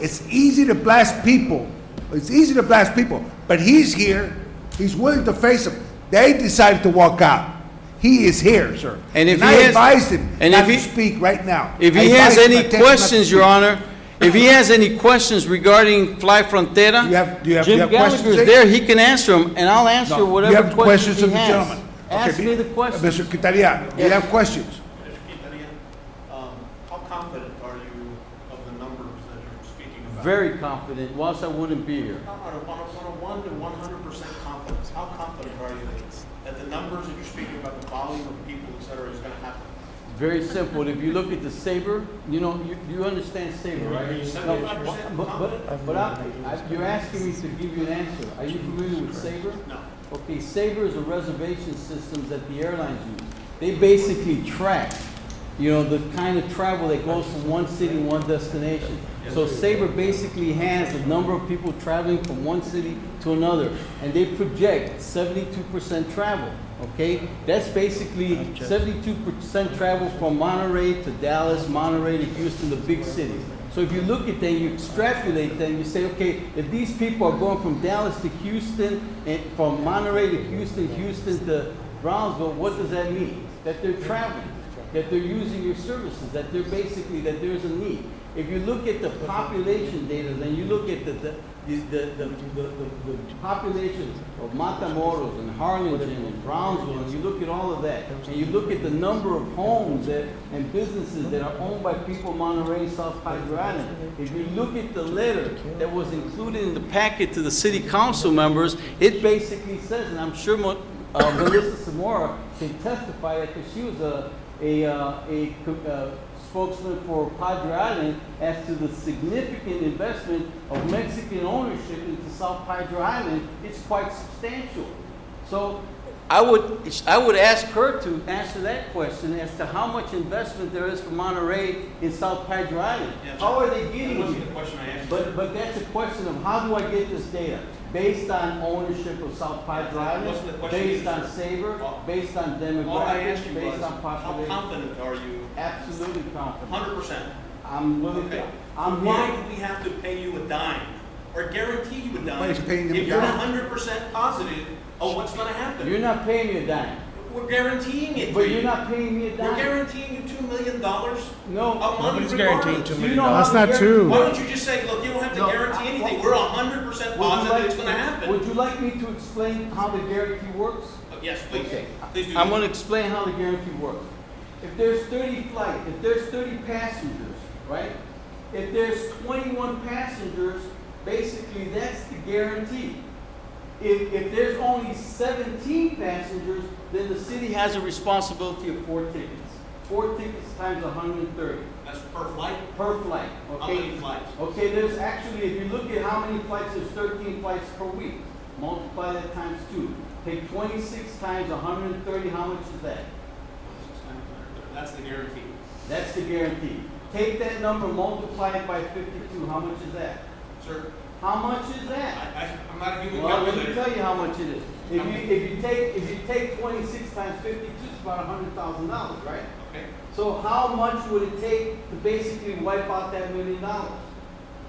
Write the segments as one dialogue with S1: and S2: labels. S1: It's easy to blast people. It's easy to blast people. But he's here. He's willing to face them. They decided to walk out. He is here, sir.
S2: And if
S1: I
S2: he has-
S1: advised him
S2: and
S1: not
S2: if he-
S1: to speak right now.
S2: If
S1: I
S2: he has
S1: advised him
S2: any
S1: not to- not to
S2: questions, Your
S1: speak.
S2: Honor, if he has any questions regarding Fly Frontera,
S1: You have- do you have- you
S2: Jim
S1: have
S2: Gallagher
S1: questions,
S2: is
S1: Jake?
S2: there, he can answer them, and I'll answer
S1: No.
S2: whatever
S1: You have questions
S2: questions
S1: of
S2: he
S1: the
S2: has.
S1: gentleman.
S2: Ask
S1: Okay,
S2: me the
S1: be- uh,
S2: question.
S1: Mr. Quintana, you
S2: Yes.
S1: have questions?
S3: Mr. Quintanilla, um, how confident are you of the numbers that you're speaking about?
S2: Very confident, or else I wouldn't be here.
S3: On a, on a, on a one to one hundred percent confidence, how confident are you that, that the numbers that you're speaking about, the volume of people, et cetera, is gonna happen?
S2: Very simple. If you look at the saber, you know, you, you understand saber, right?
S3: You said
S2: No,
S3: it.
S2: but- But, but, but I, I- you're asking me to give you an answer. Are you familiar with saber?
S3: No.
S2: Okay, Sabre is a reservation system that the airlines use. They basically track, you know, the kind of travel that goes from one city, one destination. So Sabre basically has the number of people traveling from one city to another, and they project seventy-two percent travel, okay? That's basically seventy-two percent travel from Monterey to Dallas, Monterey to Houston, the big cities. So if you look at that, you extrapolate that, and you say, okay, if these people are going from Dallas to Houston, and from Monterey to Houston, Houston to Brownsville, what does that mean? That they're traveling, that they're using your services, that they're basically, that there's a need. If you look at the population data, then you look at the, the, the, the, the, the- the population of Matamoros and Harlingen and Brownsville, and you look at all of that, and you look at the number of homes that, and businesses that are owned by people in Monterey, South Padre Island, if you look at the letter that was included in the packet to the city council members, it basically says, and I'm sure Mo- uh, Melissa Samora can testify that, because she was a, a, uh, a co- uh, spokesman for Padre Island as to the significant investment of Mexican ownership into South Padre Island, it's quite substantial. So I would, I would ask her to answer that question as to how much investment there is for Monterey in South Padre Island.
S3: Yeah,
S2: How are they getting
S3: That wasn't
S2: it?
S3: the question I asked. you.
S2: But, but that's a question of how do I get this data? Based on ownership of South Padre
S3: Wasn't the
S2: Island,
S3: question
S2: based on
S3: answered?
S2: Sabre,
S3: Well,
S2: based on
S3: All I asked
S2: demographics,
S3: you was,
S2: based on
S3: how
S2: population.
S3: confident are you?
S2: Absolutely confident.
S3: Hundred percent.
S2: I'm willing
S3: Okay.
S2: to, I'm
S3: Why
S2: willing,
S3: do we have to pay you a dime or guarantee you a dime
S1: Nobody's paying them a
S3: if you're
S1: dime.
S3: hundred percent positive of what's gonna happen?
S2: you're not paying me a dime,
S3: We're guaranteeing it to
S2: but
S3: you.
S2: you're not paying me a
S3: We're
S2: dime.
S3: guaranteeing you two million dollars a
S2: No.
S3: month
S4: Nobody's guaranteeing
S3: regardless.
S4: two
S2: You
S4: million
S2: know
S4: dollars.
S2: how
S5: That's not
S2: guaran-
S5: true.
S3: Why don't you just say, look, you don't have to
S2: No,
S3: guarantee
S2: I-
S3: anything, we're hundred percent
S2: Would you
S3: positive
S2: like-
S3: it's gonna happen.
S2: Would you like me to explain how the guarantee works?
S3: Uh, Yes, please,
S2: Okay.
S3: please do.
S2: I'm gonna explain how the guarantee works. If there's thirty flight, if there's thirty passengers, right? If there's twenty-one passengers, basically that's the guarantee. If, if there's only seventeen passengers, then the city has a responsibility of four tickets. Four tickets times hundred and thirty
S3: That's per flight,
S2: per flight, okay?
S3: how many flights?
S2: Okay, there's actually, if you look at how many flights, there's thirteen flights per week. Multiply that times two. Take twenty-six times hundred and thirty, how much is that?
S3: That's the guarantee.
S2: That's the guarantee. Take that number, multiply it by fifty-two, how much is that?
S3: Sir,
S2: How much is
S3: I,
S2: that?
S3: I, I'm not a human
S2: Well, let me
S3: calculator.
S2: tell you how much it is. If you, if you take, if you take twenty-six times fifty-two, it's about hundred thousand dollars, right?
S3: Okay,
S2: So how much would it take to basically wipe out that million dollars?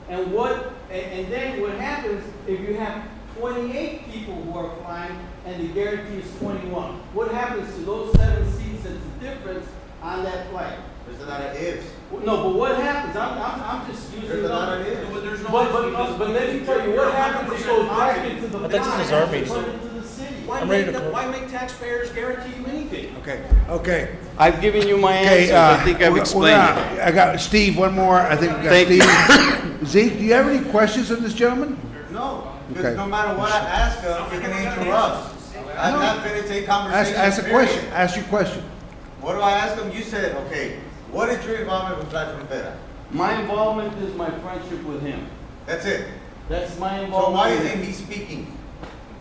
S2: And what, and, and then what happens if you have twenty-eight people who are flying and the guarantee is twenty-one? What happens to those seven seats that's the difference on that flight?
S6: There's a lot of ifs.
S2: Well, No, but what happens? I'm, I'm, I'm just using.
S6: There's a lot
S2: numbers.
S6: of ifs.
S3: but there's no.
S2: But, but, but let me tell you, what happens if those back into the.
S4: But that's
S2: pot
S4: his army.
S2: and put into the city?
S3: Why
S4: I'm ready
S3: make, the-
S4: to close.
S3: why make taxpayers guarantee you anything?
S1: Okay, okay.
S2: I've given you my
S1: Okay,
S2: answers.
S1: uh,
S2: I think I've
S1: we're- we're
S2: explained it.
S1: gonna- I got Steve, one more, I think we
S2: Thank you.
S1: got Steve. Zeke, do you have any questions on this gentleman?
S6: No,
S1: Okay.
S6: because no matter what I ask them, they're gonna interrupt. I've not finished
S1: Ask,
S6: a conversation.
S1: ask a
S6: period.
S1: question, ask your question.
S6: What do I ask them? You said, okay, what is your involvement with Black Frontera?
S2: My involvement is my friendship with him.
S6: That's it.
S2: That's my involvement.
S6: So why
S2: with
S6: isn't
S2: him.
S6: he speaking?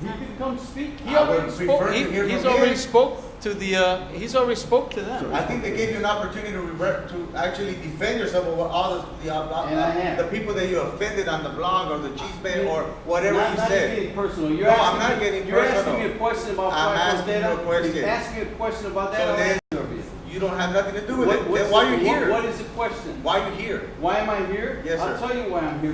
S2: He can come speak. He
S6: I would
S2: already spoke.
S6: prefer to
S2: he-
S6: hear
S2: he's
S6: from him.
S2: already spoke to the. Uh, he's already spoke to them.
S6: I think they gave you an opportunity to revert, to actually defend yourself over all the, the, uh,
S2: And I have.
S6: uh, the people that you offended on the blog or the cheese man or whatever
S2: Not-
S6: you
S2: not
S6: said.
S2: getting personal. You're
S6: No, I'm
S2: asking
S6: not
S2: me,
S6: getting
S2: You're
S6: personal.
S2: asking me a question about
S6: I'm
S2: Black
S6: asking you a
S2: Panther.
S6: question.
S2: He's asking me a question about
S6: So
S2: that.
S6: then-
S2: I'll answer it.
S6: You don't have nothing to do with
S2: What-
S6: it.
S2: what's
S6: Then why
S2: the-
S6: are you
S2: what-
S6: here?
S2: What is the question?
S6: Why are you here?
S2: Why am I here?
S6: Yes,
S2: I'll
S6: sir.
S2: tell you why I'm here.